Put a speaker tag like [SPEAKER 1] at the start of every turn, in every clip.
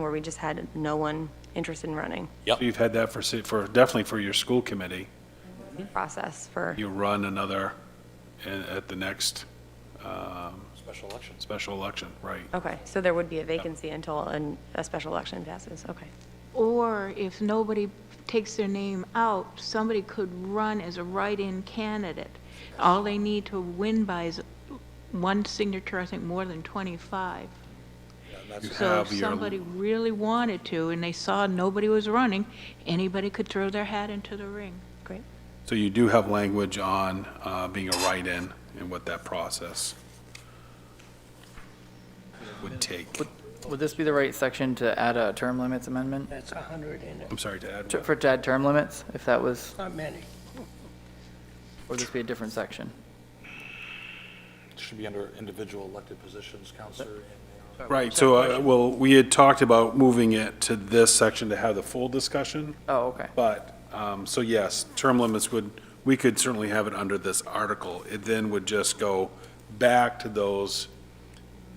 [SPEAKER 1] where we just had no one interested in running
[SPEAKER 2] Yep.
[SPEAKER 3] You've had that for, ci- for, definitely for your school committee.
[SPEAKER 1] process for,
[SPEAKER 3] You run another in- at the next um,
[SPEAKER 2] Special elections.
[SPEAKER 3] special election, right?
[SPEAKER 1] okay, so there would be a vacancy until an- a special election passes, okay.
[SPEAKER 4] Or if nobody takes their name out, somebody could run as a write-in candidate. All they need to win by is one signature, I think, more than 25.
[SPEAKER 3] You
[SPEAKER 4] So if
[SPEAKER 3] have your,
[SPEAKER 4] somebody really wanted to, and they saw nobody was running, anybody could throw their hat into the ring.
[SPEAKER 1] Great.
[SPEAKER 3] so you do have language on uh, being a write-in and what that process would take.
[SPEAKER 5] Would this be the right section to add a term limits amendment?
[SPEAKER 6] That's 100 in it,
[SPEAKER 3] I'm sorry to add,
[SPEAKER 5] To- For to add term limits, if that was,
[SPEAKER 6] not many.
[SPEAKER 5] or this be a different section?
[SPEAKER 2] Should be under individual elected positions, counselor and mayor.
[SPEAKER 3] right, so, uh, well, we had talked about moving it to this section to have the full discussion,
[SPEAKER 5] Oh, okay.
[SPEAKER 3] but, um, so yes, term limits would, we could certainly have it under this article. It then would just go back to those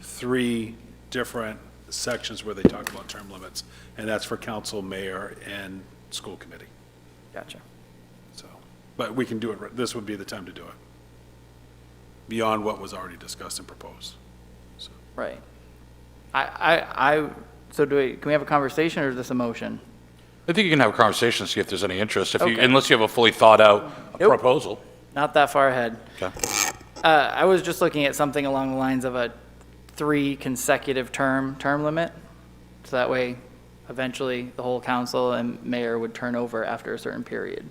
[SPEAKER 3] three different sections where they talk about term limits, and that's for council, mayor, and school committee.
[SPEAKER 5] Gotcha.
[SPEAKER 3] So, but we can do it, ri- this would be the time to do it, beyond what was already discussed and proposed.
[SPEAKER 5] Right. I, I, I, so do we, can we have a conversation or is this a motion?
[SPEAKER 2] I think you can have a conversation, see if there's any interest, if you,
[SPEAKER 5] Okay.
[SPEAKER 2] unless you have a fully thought-out
[SPEAKER 5] Nope.
[SPEAKER 2] proposal.
[SPEAKER 5] Not that far ahead.
[SPEAKER 2] Okay.
[SPEAKER 5] Uh, I was just looking at something along the lines of a three consecutive term, term limit. So that way, eventually, the whole council and mayor would turn over after a certain period.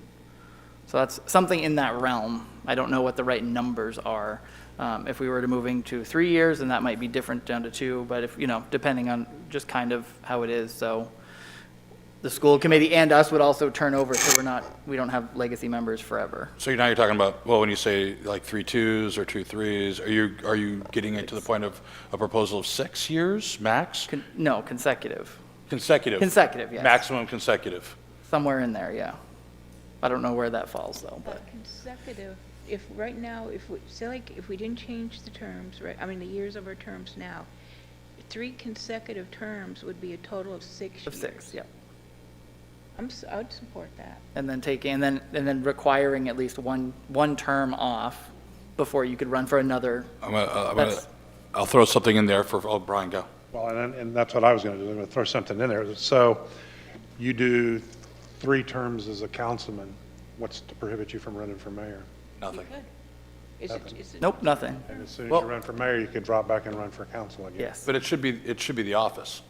[SPEAKER 5] So that's something in that realm. I don't know what the right numbers are. Um, if we were to moving to three years, then that might be different down to two, but if, you know, depending on just kind of how it is, so. The school committee and us would also turn over, so we're not, we don't have legacy members forever.
[SPEAKER 2] So you're- now you're talking about, well, when you say like three twos or two threes, are you, are you getting it to the point of a proposal of six years, max?
[SPEAKER 5] Con- No, consecutive.
[SPEAKER 2] Consecutive?
[SPEAKER 5] Consecutive, yes.
[SPEAKER 2] Maximum consecutive.
[SPEAKER 5] Somewhere in there, yeah. I don't know where that falls though, but
[SPEAKER 4] But consecutive, if, right now, if, we say like, if we didn't change the terms, right, I mean, the years of our terms now, three consecutive terms would be a total of six years.
[SPEAKER 5] of six, yeah.
[SPEAKER 4] I'm, s- I would support that.
[SPEAKER 5] And then taking, and then, and then requiring at least one, one term off before you could run for another.
[SPEAKER 2] I'm gonna, uh, I'm gonna,
[SPEAKER 5] That's-
[SPEAKER 2] I'll throw something in there for, oh, Brian, go.
[SPEAKER 7] Well, and, and that's what I was going to do, I'm going to throw something in there. So you do three terms as a councilman, what's to prohibit you from running for mayor?
[SPEAKER 2] Nothing.
[SPEAKER 4] Is it, is it?
[SPEAKER 5] Nope, nothing.
[SPEAKER 7] And as soon as
[SPEAKER 5] Well-
[SPEAKER 7] you run for mayor, you can drop back and run for council again.
[SPEAKER 5] Yes.
[SPEAKER 2] But it should be, it should be the office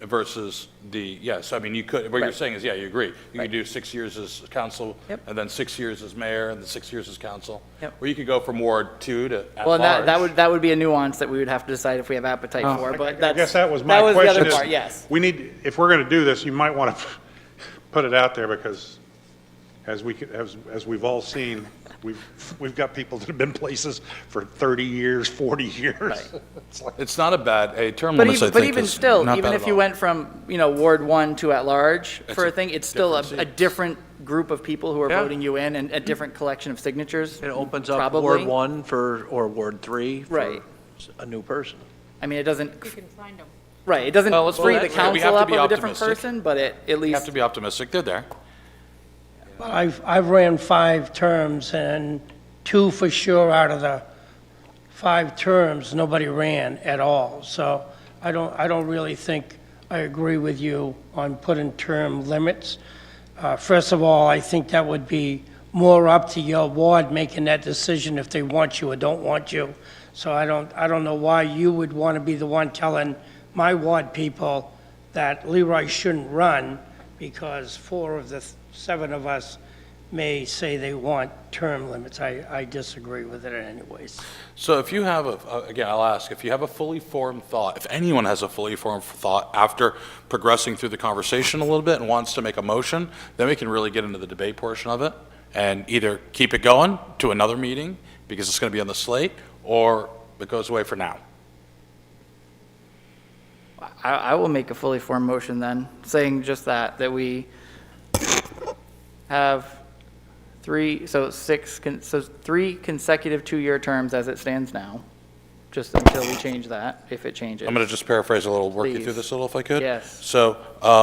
[SPEAKER 2] versus the, yes, I mean, you could, what you're
[SPEAKER 5] Right.
[SPEAKER 2] saying is, yeah, you agree. You could
[SPEAKER 5] Right.
[SPEAKER 2] do six years as council,
[SPEAKER 5] Yep.
[SPEAKER 2] and then six years as mayor, and then six years as council.
[SPEAKER 5] Yep.
[SPEAKER 2] Or you could go from Ward Two to at
[SPEAKER 5] Well, and that, that
[SPEAKER 2] large. Oh.
[SPEAKER 5] would, that would be a nuance that we would have to decide if we have appetite for, but
[SPEAKER 7] I
[SPEAKER 5] that's.
[SPEAKER 7] guess that was my question.
[SPEAKER 5] the other
[SPEAKER 7] is,
[SPEAKER 5] part, yes.
[SPEAKER 7] We need, if we're going to do this, you might want to put it out there because as we, could- as, as we've all seen, we've, we've got people that have been places for 30 years, 40 years. It's like,
[SPEAKER 2] It's not a bad, a term
[SPEAKER 5] But
[SPEAKER 2] limits, I
[SPEAKER 5] even, but
[SPEAKER 2] think,
[SPEAKER 5] even
[SPEAKER 2] is
[SPEAKER 5] still,
[SPEAKER 2] not
[SPEAKER 5] even
[SPEAKER 2] bad
[SPEAKER 5] if
[SPEAKER 2] at
[SPEAKER 5] you
[SPEAKER 2] all.
[SPEAKER 5] went from, you know, Ward one to at-large for
[SPEAKER 2] a
[SPEAKER 5] a thing, it's still a,
[SPEAKER 2] different
[SPEAKER 5] a
[SPEAKER 2] seat.
[SPEAKER 5] different group of people who are
[SPEAKER 8] Yeah.
[SPEAKER 5] voting you in and a different collection of signatures.
[SPEAKER 8] It opens up
[SPEAKER 5] probably.
[SPEAKER 8] Ward 1 for, or Ward 3 for
[SPEAKER 5] Right.
[SPEAKER 8] s- a new person.
[SPEAKER 5] I mean, it doesn't. You can find them. Right, it doesn't
[SPEAKER 2] Well, let's-
[SPEAKER 5] free
[SPEAKER 2] well,
[SPEAKER 5] the
[SPEAKER 2] that's- we have
[SPEAKER 5] council
[SPEAKER 2] to
[SPEAKER 5] up
[SPEAKER 2] be
[SPEAKER 5] of a different
[SPEAKER 2] optimistic.
[SPEAKER 5] person, but it, at
[SPEAKER 2] You have
[SPEAKER 5] least,
[SPEAKER 2] to be optimistic, they're there.
[SPEAKER 6] Well, I've, I've ran five terms, and two for sure out of the five terms, nobody ran at all. So I don't, I don't really think I agree with you on putting term limits. Uh, First of all, I think that would be more up to your ward making that decision if they want you or don't want you. So I don't, I don't know why you would want to be the one telling my ward people that Leroy shouldn't run because four of the th- seven of us may say they want term limits. I, I disagree with it anyways.
[SPEAKER 2] So if you have a, uh, again, I'll ask, if you have a fully formed thought, if anyone has a fully formed thought after progressing through the conversation a little bit and wants to make a motion, then we can really get into the debate portion of it and either keep it going to another meeting because it's going to be on the slate, or it goes away for now.
[SPEAKER 5] I, I will make a fully formed motion then, saying just that, that we have three, so six, con- so three consecutive two-year terms as it stands now. just until we change that, if it changes.
[SPEAKER 2] I'm going to just paraphrase a little, work you through
[SPEAKER 5] Please.
[SPEAKER 2] this a little if I could.
[SPEAKER 5] Yes.
[SPEAKER 2] So, um,